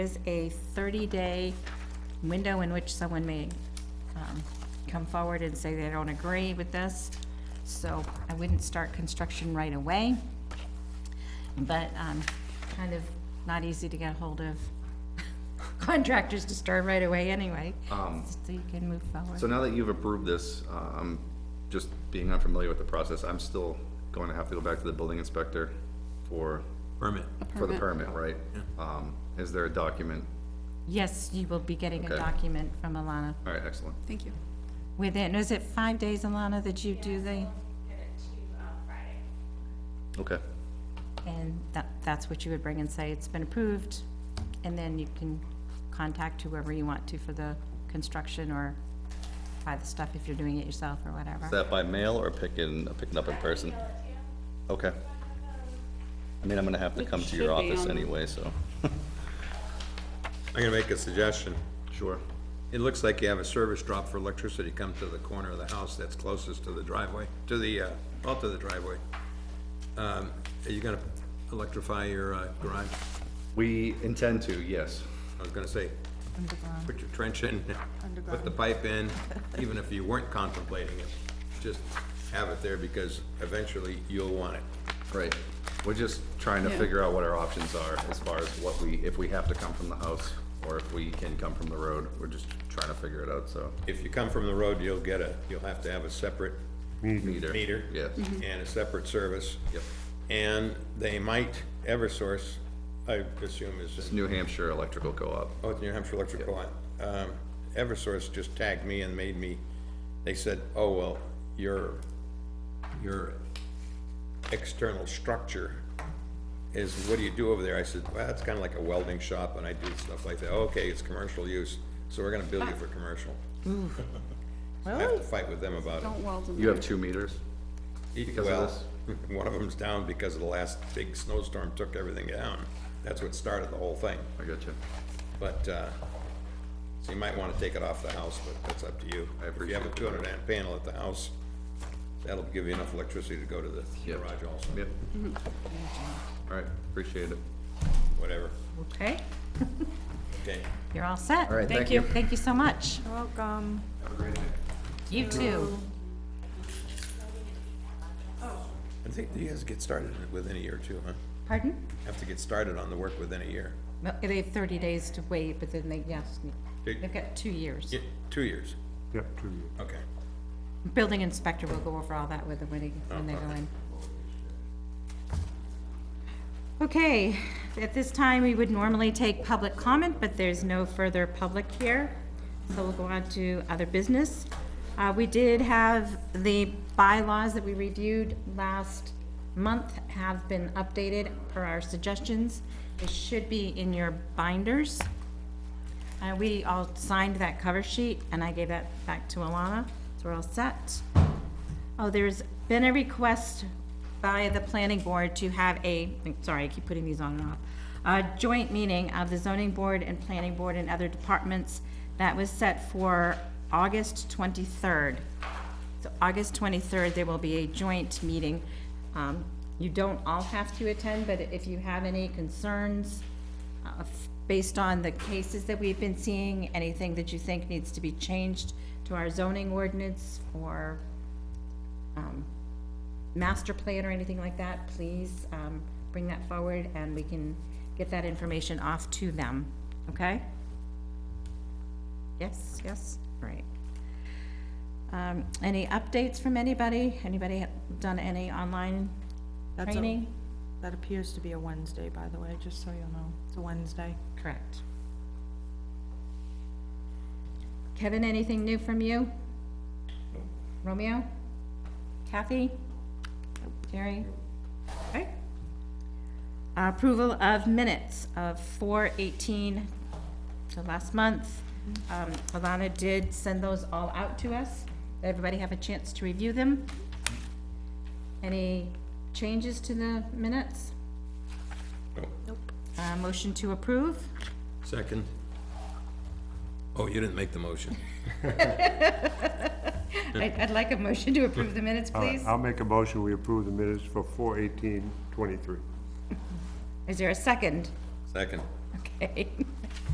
is a 30-day window in which someone may um, come forward and say they don't agree with this, so I wouldn't start construction right away. But um, kind of not easy to get hold of contractors to start right away anyway, so you can move Um, So forward. now that you've approved this, um, just being unfamiliar with the process, I'm still going to have to go back to the building inspector for, Permit. for the permit, right? Um, is there a document? Yes, you will be getting a Okay. document from Alana All right, excellent. Thank you. within, is it five days, Alana, that you do the? Okay. And that, that's what you would bring and say, it's been approved, and then you can contact whoever you want to for the construction or buy the stuff if you're doing it yourself or Is whatever. that by mail or picking, picking up in person? Okay. I mean, I'm gonna have to It come to your should be office on the- anyway, so. I'm gonna make a suggestion. Sure. It looks like you have a service drop for electricity come to the corner of the house that's closest to the driveway, to the, uh, well, to the driveway. Um, Are you gonna electrify your uh, garage? We intend to, yes. I was gonna say, put your trench in, put the pipe in, even if you weren't contemplating it. Just have it there because eventually you'll want it. Right. We're just trying to Yeah. figure out what our options are as far as what we, if we have to come from the house or if we can come from the road. We're just trying to figure it out, so. If you come from the road, you'll get a, you'll have to have a separate Meter. Mm-hmm. meter. Yes. And a separate service. Yep. And they might, Eversource, I assume is in It's New Hampshire Electrical Co-op. Oh, it's New Hampshire Electric Co-op. Um, Eversource just tagged me and made me, they said, oh, well, your, your external structure is, what do you do over there? I said, well, it's kinda like a welding shop and I do stuff like that. "Oh, Okay, it's commercial use, so we're gonna bill you for commercial. I have to fight with them about it. Don't weld them. You have two meters? of Well, one of them's down because of the last big snowstorm took everything down. That's what started the whole thing. I got you. But, uh, so you might wanna take it off the house, but that's up to you. I If you have a appreciate two hundred amp panel at the house, that'll give you enough electricity to go to the Yep. garage also, Yep. All right, appreciate it. whatever, Okay, okay? you're all set. All right, Thank thank you. you. Thank you so much. Welcome. You too. I think you guys get started within a year too, huh? Pardon? Have to get started on the work within a year. No, They have thirty days to wait, but then they, yes, they've got two years. Yeah, two years, Yep, two years. okay. Building inspector will go over all that with them when he, when they go in. Okay, at this time, we would normally take public comment, but there's no further public here. So we'll go on to other business. Uh, we did have the bylaws that we reviewed last month have been updated per our suggestions. It should be in your binders. Uh, we all signed that cover sheet, and I gave that back to Alana, so we're all set. Oh, there's been a request by the planning board to have a, sorry, I keep putting these on and off, a joint meeting of the zoning board and planning board and other departments that was set for August twenty-third. So August twenty-third, there will be a joint meeting. Um, you don't all have to attend, but if you have any concerns, uh, f- based on the cases that we've been seeing, anything that you think needs to be changed to our zoning ordinance or um, master plan or anything like that, please um, bring that forward and we can get that information off to them, okay? Yes, yes, right. Um, Any updates from anybody? Anybody done any online That's a- training? That appears to be a Wednesday, by the way, just so you'll know. It's a Wednesday. Correct. Kevin, anything new from you? Romeo? Kathy? Jerry? Okay. Approval of minutes of four eighteen, so last month. Mm-hmm. Um, Alana did send those all out to us. Did Everybody have a chance to review them? Any changes to the minutes? Nope. Uh, motion to approve? Second. Oh, you didn't make the motion. I'd, I'd like a motion to approve the minutes, All right, please. I'll make a motion, we approve the minutes for four eighteen twenty-three. Is there a second? Second, Okay.